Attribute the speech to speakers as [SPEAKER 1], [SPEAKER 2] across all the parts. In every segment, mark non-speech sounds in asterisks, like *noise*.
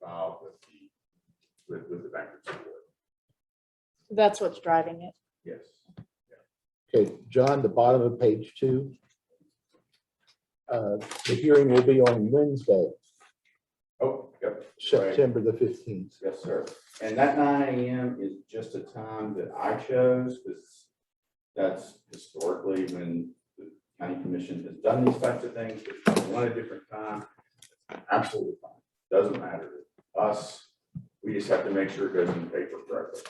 [SPEAKER 1] filed with the, with, with the bankruptcy court.
[SPEAKER 2] That's what's driving it.
[SPEAKER 1] Yes.
[SPEAKER 3] Okay, John, the bottom of page two. Uh, The hearing will be on Wednesday,
[SPEAKER 1] Oh, yep,
[SPEAKER 3] September the 15th.
[SPEAKER 1] yes, sir. And that nine AM is just a time that I chose, because that's historically when the county commission has done these types of things, but if you want a different time, absolutely fine. Doesn't matter to us. We just have to make sure it goes in the paper correctly.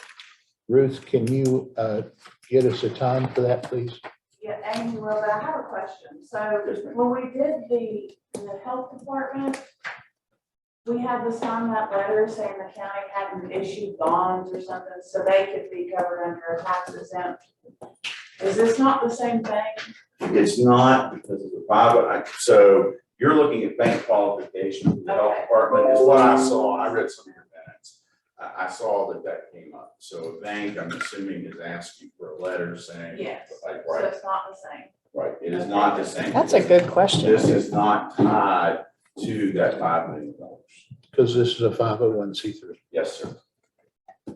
[SPEAKER 3] Ruth, can you uh, get us a time for that, please?
[SPEAKER 4] Yeah, Amy, well, but I have a question. So
[SPEAKER 1] Yes, ma'am.
[SPEAKER 4] when we did the, the health department, we had to sign that letter saying the county hadn't issued bonds or something, so they could be covered under a tax exempt. Is this not the same thing?
[SPEAKER 1] It's not because of the private, I, so you're looking at bank qualification for the health
[SPEAKER 4] Okay.
[SPEAKER 1] department is what I saw, I read some of your minutes. I, I saw that that came up, so a bank, I'm assuming, is asking for a letter saying.
[SPEAKER 4] Yes.
[SPEAKER 1] Like,
[SPEAKER 4] So
[SPEAKER 1] right,
[SPEAKER 4] it's not the same.
[SPEAKER 1] right, it is not the same.
[SPEAKER 2] That's a good
[SPEAKER 1] This
[SPEAKER 2] question.
[SPEAKER 1] is not tied to that five million dollars.
[SPEAKER 3] Because this is a 501c3.
[SPEAKER 1] Yes, sir.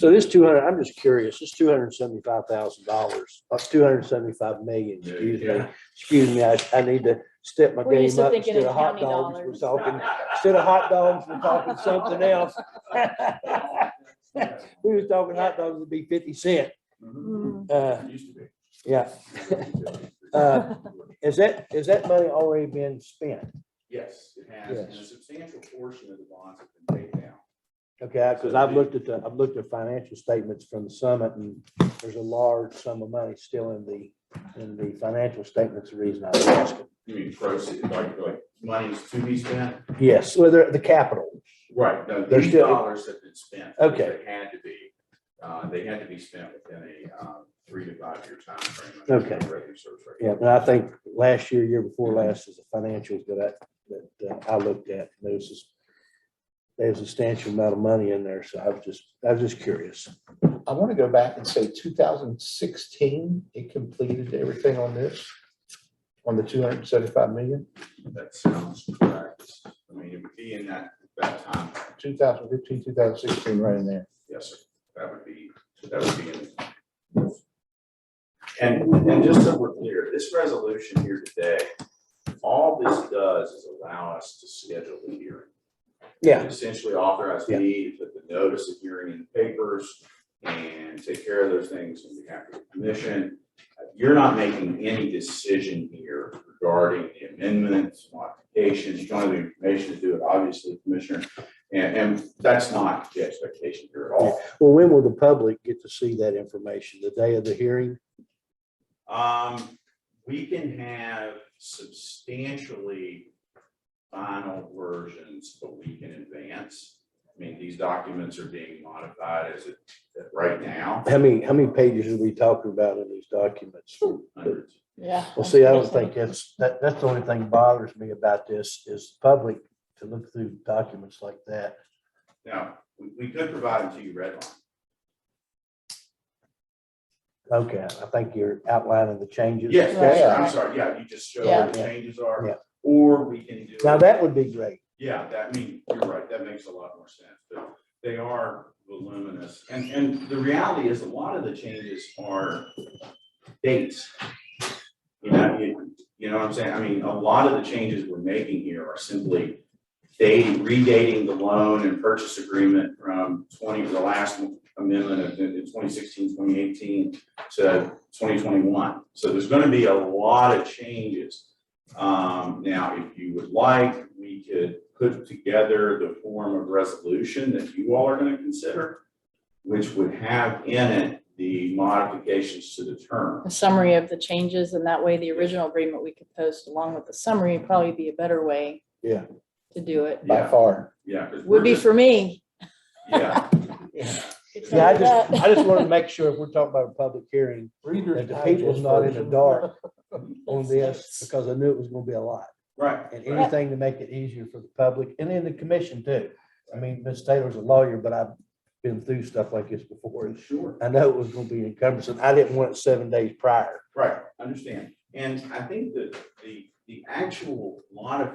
[SPEAKER 5] So this two hundred, I'm just curious, this two hundred and seventy-five thousand dollars, uh, two hundred and seventy-five million, excuse me,
[SPEAKER 1] Yeah.
[SPEAKER 5] excuse me, I, I need to step my
[SPEAKER 2] We're used
[SPEAKER 5] game
[SPEAKER 2] to
[SPEAKER 5] up.
[SPEAKER 2] thinking
[SPEAKER 5] Instead
[SPEAKER 2] in
[SPEAKER 5] of hot
[SPEAKER 2] county
[SPEAKER 5] dogs, we're
[SPEAKER 1] *laughs*
[SPEAKER 2] dollars.
[SPEAKER 5] talking, *laughs* instead of hot dogs, we're talking something else. We was talking hot dogs would be fifty cent,
[SPEAKER 1] Mhm.
[SPEAKER 2] Mm,
[SPEAKER 5] uh,
[SPEAKER 1] It used to be.
[SPEAKER 5] yeah. Uh, Is that, is that money already been spent?
[SPEAKER 1] Yes, it has, and a
[SPEAKER 3] Yes.
[SPEAKER 1] substantial portion of the bonds have been paid down.
[SPEAKER 5] Okay, because I've looked at the, I've looked at financial statements from the summit and there's a large sum of money still in the, in the financial statements, the reason I was asking.
[SPEAKER 1] You mean proceeds, like, like money's to be spent?
[SPEAKER 5] Yes, whether the capital.
[SPEAKER 1] Right, no,
[SPEAKER 5] They're
[SPEAKER 1] these
[SPEAKER 5] still-
[SPEAKER 1] dollars have been spent. because
[SPEAKER 5] Okay.
[SPEAKER 1] They had to be, uh, they had to be spent within a, um, three to five year timeframe.
[SPEAKER 5] Okay. Yeah, and I think last year, year before last is the financials that I, that uh, I looked at. There's this, there's a substantial amount of money in there, so I was just, I was just curious.
[SPEAKER 3] I want to go back and say 2016, it completed everything on this, on the 275 million,
[SPEAKER 1] That sounds correct. I mean, it would be in that, that time,
[SPEAKER 3] 2015, 2016, right in there.
[SPEAKER 1] yes, sir. That would be, that would be in. And, and just so we're clear, this resolution here today, all this does is allow us to schedule the hearing. Essentially authorize
[SPEAKER 5] Yeah.
[SPEAKER 1] me to put the notice of hearing in the papers and take care of those things on behalf of the commission. Uh, You're not making any decision here regarding the amendments, modifications, you don't have the information to do it, obviously, Commissioner. And, and that's not the expectation here at all.
[SPEAKER 5] Well, when will the public get to see that information? The day of the hearing?
[SPEAKER 1] Um, we can have substantially final versions a week in advance. I mean, these documents are being modified as it, right now.
[SPEAKER 5] How many, how many pages are we talking about in these documents?
[SPEAKER 1] Hundreds.
[SPEAKER 2] Yeah.
[SPEAKER 5] Well, see, I don't think that's, that, that's the only thing bothers me about this is public to look through documents like that.
[SPEAKER 1] Now, we, we could provide them to you redline.
[SPEAKER 5] Okay, I think you're outlining the changes.
[SPEAKER 1] Yes, yes, sir, I'm
[SPEAKER 2] Right.
[SPEAKER 1] sorry, yeah, you just show where the
[SPEAKER 5] Yeah.
[SPEAKER 1] changes
[SPEAKER 5] Yeah.
[SPEAKER 1] are, or we can do.
[SPEAKER 5] Now, that would be great.
[SPEAKER 1] Yeah, that, I mean, you're right, that makes a lot more sense, but they are voluminous, and, and the reality is, a lot of the changes are dates. You know, you, you know what I'm saying, I mean, a lot of the changes we're making here are simply dating, redating the loan and purchase agreement from twenty, the last amendment of, in 2016, 2018 to twenty twenty-one. So there's gonna be a lot of changes. Um, now, if you would like, we could put together the form of resolution that you all are gonna consider, which would have in it the modifications to the term.
[SPEAKER 2] A summary of the changes and that way the original agreement we could post along with the summary would probably be a better way.
[SPEAKER 5] Yeah.
[SPEAKER 2] To do it.
[SPEAKER 3] By
[SPEAKER 1] Yeah.
[SPEAKER 3] far.
[SPEAKER 1] Yeah, because
[SPEAKER 2] Would be for me.
[SPEAKER 1] Yeah,
[SPEAKER 2] Could
[SPEAKER 5] Yeah,
[SPEAKER 2] tell
[SPEAKER 5] I
[SPEAKER 2] you
[SPEAKER 5] just,
[SPEAKER 2] that.
[SPEAKER 5] I just want to make sure if we're talking about a public hearing, that
[SPEAKER 3] Reader's
[SPEAKER 5] the people's not in the
[SPEAKER 3] Digest
[SPEAKER 5] dark on this, because I knew it was going to be a lot.
[SPEAKER 1] right.
[SPEAKER 5] And anything to make it easier for the public and then the commission too. I mean, Ms. Taylor's a lawyer, but I've been through stuff like this before. and
[SPEAKER 1] Sure.
[SPEAKER 5] I know it was going to be encumbersome. I didn't want it seven days prior.
[SPEAKER 1] Right, understand. And I think that the, the actual modification